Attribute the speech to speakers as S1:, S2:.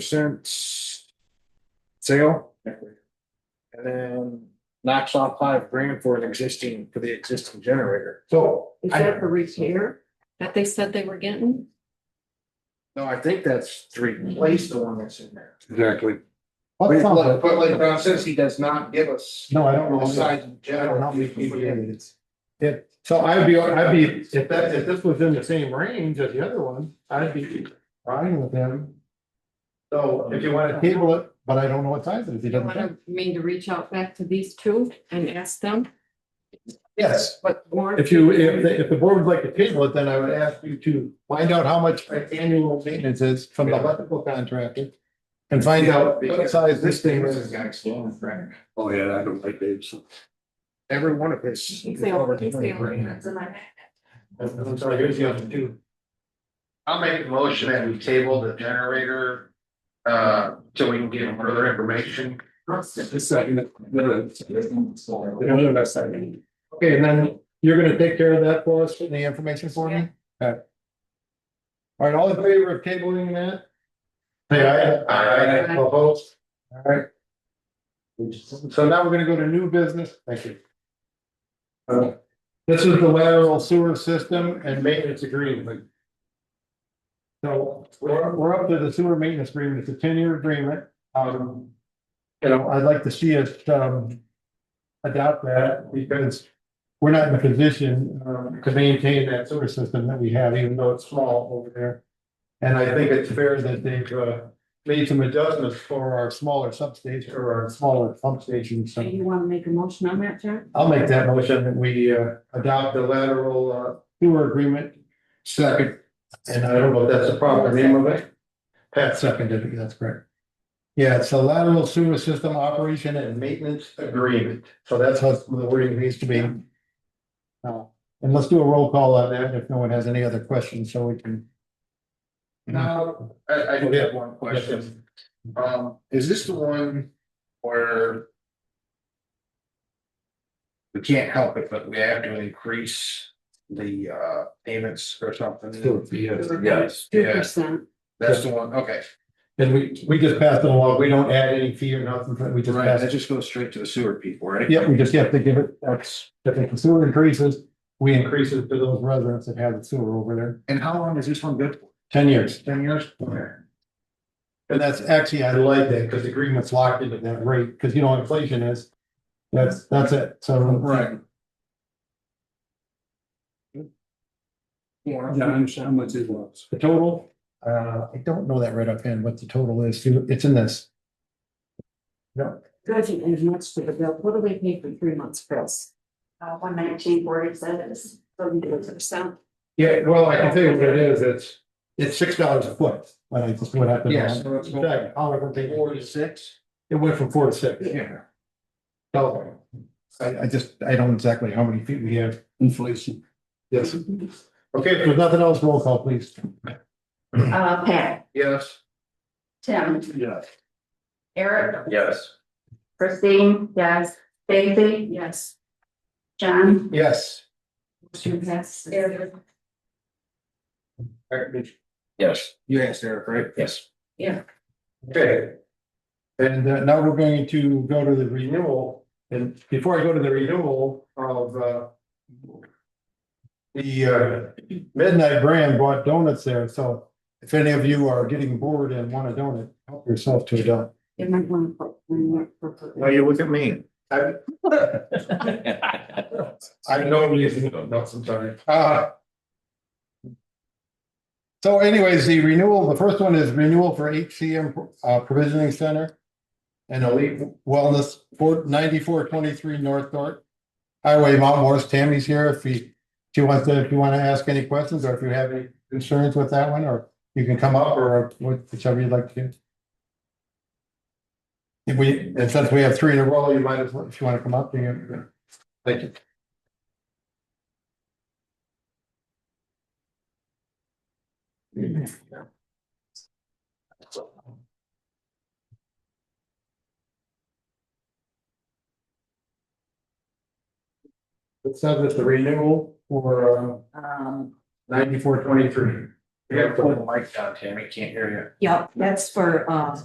S1: percent sale. And then knocks off five grand for an existing, for the existing generator. So.
S2: Is
S1: I-
S2: that for repair that they said they were getting?
S1: No, I think that's to replace the one that's in there.
S3: Exactly.
S1: But like- but like Ron says, he does not give us.
S3: No, I don't
S1: the
S3: know.
S1: size in general.
S3: Yeah, so I'd be, I'd be, if that, if this was in the same range as the other one, I'd be fine with him.
S1: So
S3: If you wanna table it, but I don't know what size it is, he
S2: You
S3: doesn't.
S2: want
S3: say.
S2: to mean to reach out back to these two and ask them
S3: Yes,
S2: what more?
S3: if you, if, the- if the board would like to table it, then I would ask you to find out how much annual maintenance is from the electrical contractor. And find out what size this thing is.
S1: Guy's right?
S4: Oh, yeah, I don't like babes.
S1: Every one of his.
S2: He's the only- he's the only ones in my-
S3: I'm sorry, here's the other two.
S5: I'll make a motion that we table the generator. Uh, till we can get further information.
S3: Okay, and then you're gonna take care of that for us, and the information for me? Okay. All right, all in favor of tabling that? Say aye.
S2: Aye.
S3: Opposed? All right. So now we're gonna go to new business, thank you. Uh, This is the lateral sewer system and maintenance agreement. So we're, we're up to the sewer maintenance agreement, it's a ten-year agreement. Um, you know, I'd like to see us, um, adopt that because we're not in a position, um, to maintain that sewer system that we have, even though it's small over there. And I think it's fair that they've, uh, made some adjustments for our smaller substation or our smaller pump stations.
S2: Do
S3: So
S2: you want to make a motion on that, John?
S3: I'll make that motion that we, uh, adopt the lateral, uh, sewer agreement. Second. And I don't know if that's the proper name of it. Pat seconded it, that's correct. Yeah, it's a lateral sewer system operation and maintenance agreement, so that's how the wording needs to be. Uh, and let's do a roll call on that if no one has any other questions, so we can.
S5: Now, I, I do have one question. Um, is this the one where? We can't help it, but we have to increase the uh payments or something.
S4: Yes.
S2: Two
S5: Yeah.
S2: percent.
S5: That's the one, okay.
S3: And we, we just passed it along, we don't add any fee or nothing, but we just
S5: Right,
S3: pass it.
S5: that just goes straight to the sewer people, right?
S3: Yeah, we just have to give it, that's, if the sewer increases, we increase it to those residents that have the sewer over there,
S5: And how long is this one good for?
S3: ten years.
S5: Ten years?
S3: And that's actually, I like that, because the agreement's locked into that rate, because you know what inflation is. That's, that's it, so.
S5: Right.
S4: how much is lost?
S3: The total, uh, I don't know that right offhand, what the total is, it's in this. No,
S2: Doesn't add much to the bill. What do they pay for three months, Chris?
S6: uh, one nineteen forty says,
S2: Thirty-two percent.
S3: yeah, well, I can tell you what it is, it's. It's six dollars a foot, when I just went up and
S1: Yes.
S3: down. Exactly, however, they-
S1: Four to six.
S3: It went from four to six.
S1: Yeah.
S3: So, I, I just, I don't know exactly how many feet we have.
S4: Inflation.
S3: Yes. Okay, if there's nothing else, roll call, please.
S6: uh, Pat,
S5: Yes.
S6: Tim,
S4: Yes.
S6: Eric,
S5: Yes.
S6: Christine, yes, Daisy,
S2: Yes.
S6: John.
S3: Yes.
S2: Motion passes.
S4: Yes.
S1: You asked Eric, right?
S4: Yes.
S3: Okay. And uh, now we're going to go to the renewal, and before I go to the renewal of, uh. The, uh, Midnight Brand bought donuts there, so if any of you are getting bored and want a donut, help yourself to a donut.
S2: You might want to put one more for-
S5: Now you look at me.
S3: I know reason, no, sometimes. Ah. So anyways, the renewal, the first one is renewal for HCM uh, Provisioning Center. And Elite Wellness, four ninety-four twenty-three North Dart. Highway Mount Morris, Tammy's here if he, if you want to, if you want to ask any questions or if you have any concerns with that one, or you can come up or whichever you'd like to. do. If we, and since we have three in a row, you might as well, if you want to come up, you. Thank you. It says it's the renewal for
S6: Um, Um,
S3: ninety-four uh, twenty-three.
S1: You gotta pull the mic down, Tammy, can't hear you.
S2: Yep, that's for, um,